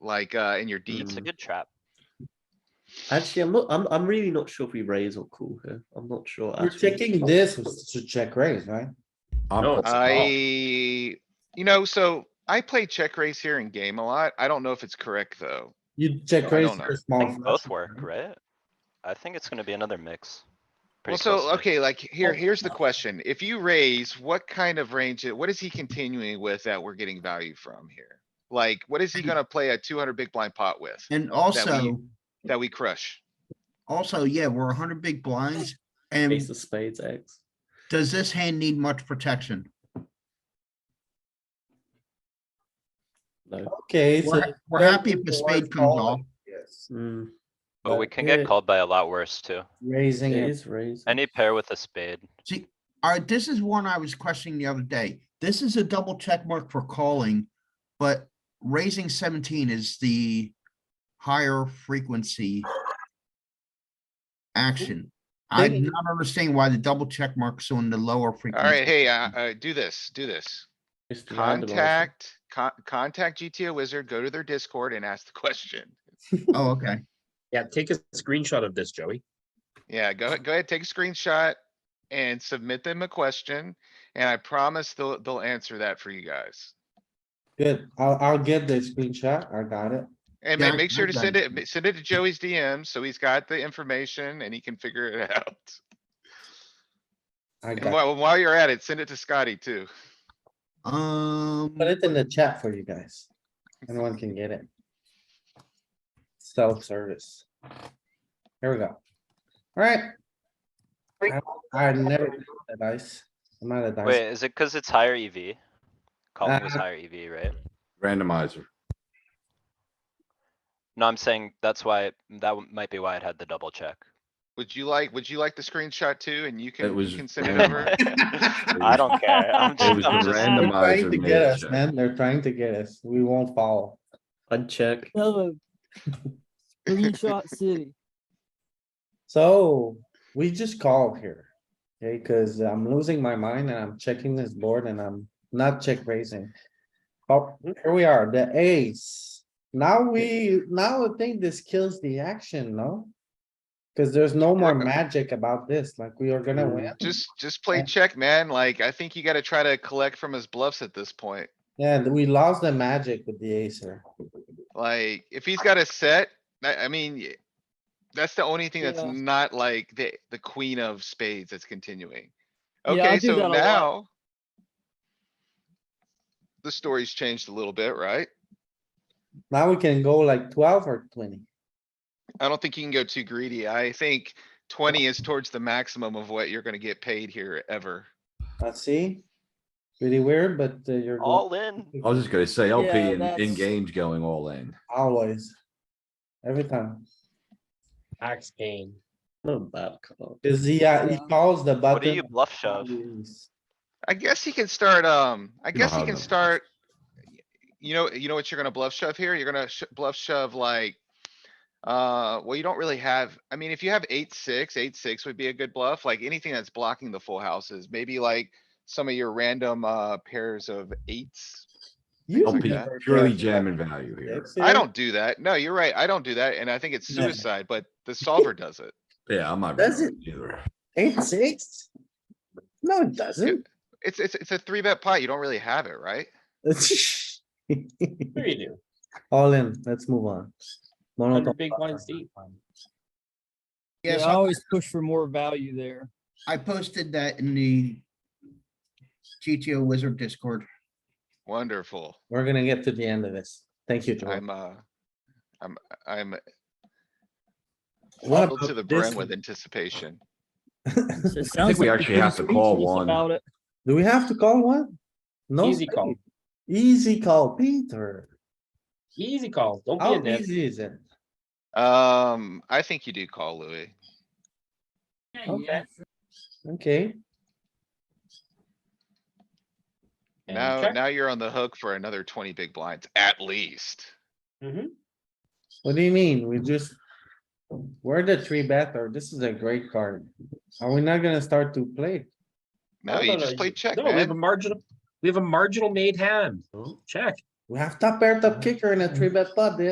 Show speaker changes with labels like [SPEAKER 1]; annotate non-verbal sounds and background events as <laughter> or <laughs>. [SPEAKER 1] like, uh, in your deep.
[SPEAKER 2] It's a
[SPEAKER 3] Mm.
[SPEAKER 2] good trap.
[SPEAKER 3] Actually, I'm not. I'm. I'm really not sure if we raise or call here. I'm not sure.
[SPEAKER 4] You're
[SPEAKER 3] actually.
[SPEAKER 4] checking this with- to check raise, right?
[SPEAKER 5] I'm
[SPEAKER 4] No,
[SPEAKER 5] puts it off.
[SPEAKER 1] I, you know, so I play check raise here in game a lot. I don't know if it's correct, though.
[SPEAKER 4] You
[SPEAKER 1] I
[SPEAKER 4] check raise
[SPEAKER 1] don't know.
[SPEAKER 4] for
[SPEAKER 2] I
[SPEAKER 4] small.
[SPEAKER 2] think both
[SPEAKER 4] flush,
[SPEAKER 2] work,
[SPEAKER 4] right?
[SPEAKER 2] right? I think it's gonna be another mix.
[SPEAKER 1] Well,
[SPEAKER 2] Pretty
[SPEAKER 1] so,
[SPEAKER 2] closely.
[SPEAKER 1] okay, like, here,
[SPEAKER 4] Oh,
[SPEAKER 1] here's the
[SPEAKER 4] no.
[SPEAKER 1] question. If you raise, what kind of range, what is he continuing with that we're getting value from here? Like, what is he gonna play a two hundred big blind pot with
[SPEAKER 6] And also,
[SPEAKER 1] that we crush?
[SPEAKER 6] also, yeah, we're hundred big blinds.
[SPEAKER 3] Ace
[SPEAKER 6] And
[SPEAKER 3] of spades, X.
[SPEAKER 6] does this hand need much protection?
[SPEAKER 3] No.
[SPEAKER 4] Okay, so.
[SPEAKER 6] We're, we're happy if the spade comes off.
[SPEAKER 4] Yes,
[SPEAKER 3] Mm,
[SPEAKER 2] But we
[SPEAKER 4] but
[SPEAKER 2] can get
[SPEAKER 4] here-
[SPEAKER 2] called by a lot worse too.
[SPEAKER 4] Raising
[SPEAKER 3] it
[SPEAKER 4] it.
[SPEAKER 3] is raised.
[SPEAKER 2] Any pair with a spade.
[SPEAKER 6] See, alright, this is one I was questioning the other day. This is a double check mark for calling, but raising seventeen is the higher frequency action. I'm
[SPEAKER 4] Maybe-
[SPEAKER 6] not understanding why the double check mark's on the lower frequency.
[SPEAKER 1] Alright, hey, uh, uh, do this, do this.
[SPEAKER 3] Just randomize it.
[SPEAKER 1] Contact, con- contact GTO wizard, go to their Discord and ask the question.
[SPEAKER 6] Oh, okay.
[SPEAKER 5] Yeah, take a screenshot of this, Joey.
[SPEAKER 1] Yeah, go, ahead- go ahead, take a screenshot and submit them a question, and I promise they'll, they'll answer that for you guys.
[SPEAKER 4] Good, I'll, I'll get the screenshot, I got it.
[SPEAKER 1] And
[SPEAKER 6] Yeah,
[SPEAKER 1] ma- make sure
[SPEAKER 6] I've
[SPEAKER 1] to
[SPEAKER 6] done
[SPEAKER 1] send
[SPEAKER 6] it.
[SPEAKER 1] it, ma- send it to Joey's DM, so he's got the information and he can figure it <laughs> out.
[SPEAKER 4] I
[SPEAKER 1] And
[SPEAKER 4] got,
[SPEAKER 1] while, while you're at it, send it to Scotty too.
[SPEAKER 6] Um,
[SPEAKER 4] put it in the chat for you guys. Anyone can get it. Self-service. Here we go. Alright. I- I never did the dice. I'm out of
[SPEAKER 2] Wait,
[SPEAKER 4] dice.
[SPEAKER 2] is it cuz it's higher EV? Calling was
[SPEAKER 4] Uh,
[SPEAKER 2] higher EV, right?
[SPEAKER 5] Randomizer.
[SPEAKER 2] No, I'm saying that's why, that w- might be why it had the double check.
[SPEAKER 1] Would you like, would you like the screenshot too? And you can,
[SPEAKER 5] was
[SPEAKER 1] you can
[SPEAKER 2] <laughs>
[SPEAKER 1] send it over. <laughs>
[SPEAKER 2] I don't care. I'm
[SPEAKER 5] It
[SPEAKER 2] just,
[SPEAKER 5] was
[SPEAKER 2] I'm
[SPEAKER 5] the
[SPEAKER 2] just,
[SPEAKER 4] They're trying
[SPEAKER 5] randomizer
[SPEAKER 4] to
[SPEAKER 5] made
[SPEAKER 4] get
[SPEAKER 5] it
[SPEAKER 4] us,
[SPEAKER 5] check.
[SPEAKER 4] man, they're trying to get us, we won't follow.
[SPEAKER 3] Uncheck.
[SPEAKER 7] Hello.
[SPEAKER 8] <laughs>
[SPEAKER 7] Screenshot City.
[SPEAKER 4] So, we just called here. Okay, cuz I'm losing my mind and I'm checking this board and I'm not check raising. Oh, here we are, the ace. Now we, now I think this kills the action, no? Cuz there's no more magic about this, like we are gonna win.
[SPEAKER 1] Just, just play
[SPEAKER 4] Yeah.
[SPEAKER 1] check, man. Like, I think you gotta try to collect from his bluffs at this point.
[SPEAKER 4] Yeah, we lost the magic with the ace here.
[SPEAKER 1] Like, if he's got a set, I, I mean, y- that's the only thing that's
[SPEAKER 7] Yeah.
[SPEAKER 1] not like the, the queen of spades that's continuing.
[SPEAKER 7] Yeah, I
[SPEAKER 1] Okay,
[SPEAKER 7] do
[SPEAKER 1] so
[SPEAKER 7] that a lot.
[SPEAKER 1] now. The story's changed a little bit, right?
[SPEAKER 4] Now we can go like twelve or twenty.
[SPEAKER 1] I don't think you can go too greedy. I think twenty is towards the maximum of what you're gonna get paid here ever.
[SPEAKER 4] Let's see. Pretty weird, but uh, you're go-
[SPEAKER 2] all in.
[SPEAKER 5] I was just gonna say LP
[SPEAKER 7] Yeah,
[SPEAKER 5] in, in
[SPEAKER 7] that's-
[SPEAKER 5] games going all in.
[SPEAKER 4] always. Every time.
[SPEAKER 8] Axe game.
[SPEAKER 3] Not a bad call.
[SPEAKER 4] Cuz he, uh, he
[SPEAKER 7] Yeah.
[SPEAKER 4] calls the button.
[SPEAKER 2] What do you bluff shove?
[SPEAKER 4] Jeez.
[SPEAKER 1] I guess he can start, um, I
[SPEAKER 5] don't
[SPEAKER 1] guess he
[SPEAKER 5] have
[SPEAKER 1] can
[SPEAKER 5] that much.
[SPEAKER 1] start. You know, you know what you're gonna bluff shove here? You're gonna sh- bluff shove like. Uh, well, you don't really have, I mean, if you have eight, six, eight, six would be a good bluff, like anything that's blocking the full houses, maybe like. Some of your random, uh, pairs of eights.
[SPEAKER 4] You
[SPEAKER 1] I'll
[SPEAKER 5] LP
[SPEAKER 1] be
[SPEAKER 4] prefer
[SPEAKER 5] purely
[SPEAKER 4] that.
[SPEAKER 5] jamming value here.
[SPEAKER 4] That's
[SPEAKER 1] I
[SPEAKER 4] it.
[SPEAKER 1] don't do that. No, you're right. I don't do that. And I think it's
[SPEAKER 4] No.
[SPEAKER 1] suicide, but the solver does it.
[SPEAKER 5] Yeah, I'm not.
[SPEAKER 4] Does
[SPEAKER 5] really Either.
[SPEAKER 4] Eight, six? No, it doesn't. <laughs>
[SPEAKER 1] It's, it's, it's a three bet pot. You don't really have it, right?
[SPEAKER 8] Sure you do.
[SPEAKER 4] All in, let's move on. Monotone.
[SPEAKER 8] Hundred big blinds deep.
[SPEAKER 7] Yeah,
[SPEAKER 6] Yes,
[SPEAKER 7] I
[SPEAKER 6] I-
[SPEAKER 7] always push for more value there.
[SPEAKER 6] I posted that in the GTO Wizard Discord.
[SPEAKER 1] Wonderful.
[SPEAKER 4] We're gonna get to the end of this. Thank you, Joel.
[SPEAKER 1] I'm, uh, I'm, I'm filled
[SPEAKER 4] What
[SPEAKER 1] to
[SPEAKER 4] about
[SPEAKER 1] the
[SPEAKER 4] this
[SPEAKER 1] brim with anticipation.
[SPEAKER 8] <laughs>
[SPEAKER 7] So it sounds
[SPEAKER 5] we
[SPEAKER 7] like
[SPEAKER 5] actually
[SPEAKER 7] you're
[SPEAKER 5] have
[SPEAKER 7] pretty
[SPEAKER 5] to call
[SPEAKER 7] speechless
[SPEAKER 5] one.
[SPEAKER 7] About it.
[SPEAKER 4] Do we have to call one? No.
[SPEAKER 8] Easy call.
[SPEAKER 4] way. Easy call, Peter.
[SPEAKER 8] Easy calls. Don't
[SPEAKER 7] Oh,
[SPEAKER 8] be a
[SPEAKER 4] How
[SPEAKER 8] nip.
[SPEAKER 4] easy is it?
[SPEAKER 1] Um, I think you do call Louis.
[SPEAKER 8] Okay.
[SPEAKER 4] Okay,
[SPEAKER 8] And
[SPEAKER 1] Now,
[SPEAKER 8] check.
[SPEAKER 1] now you're on the hook for another twenty big blinds at least.
[SPEAKER 8] Mhm.
[SPEAKER 4] what do you mean? We just. We're the three bet or this is a great card. Are we not gonna start to play?
[SPEAKER 1] No, you just play check,
[SPEAKER 8] No, we have a
[SPEAKER 1] man.
[SPEAKER 8] marginal, we have a marginal made hand. Check.
[SPEAKER 4] We have top pair, top kicker and a three bet pot, dude.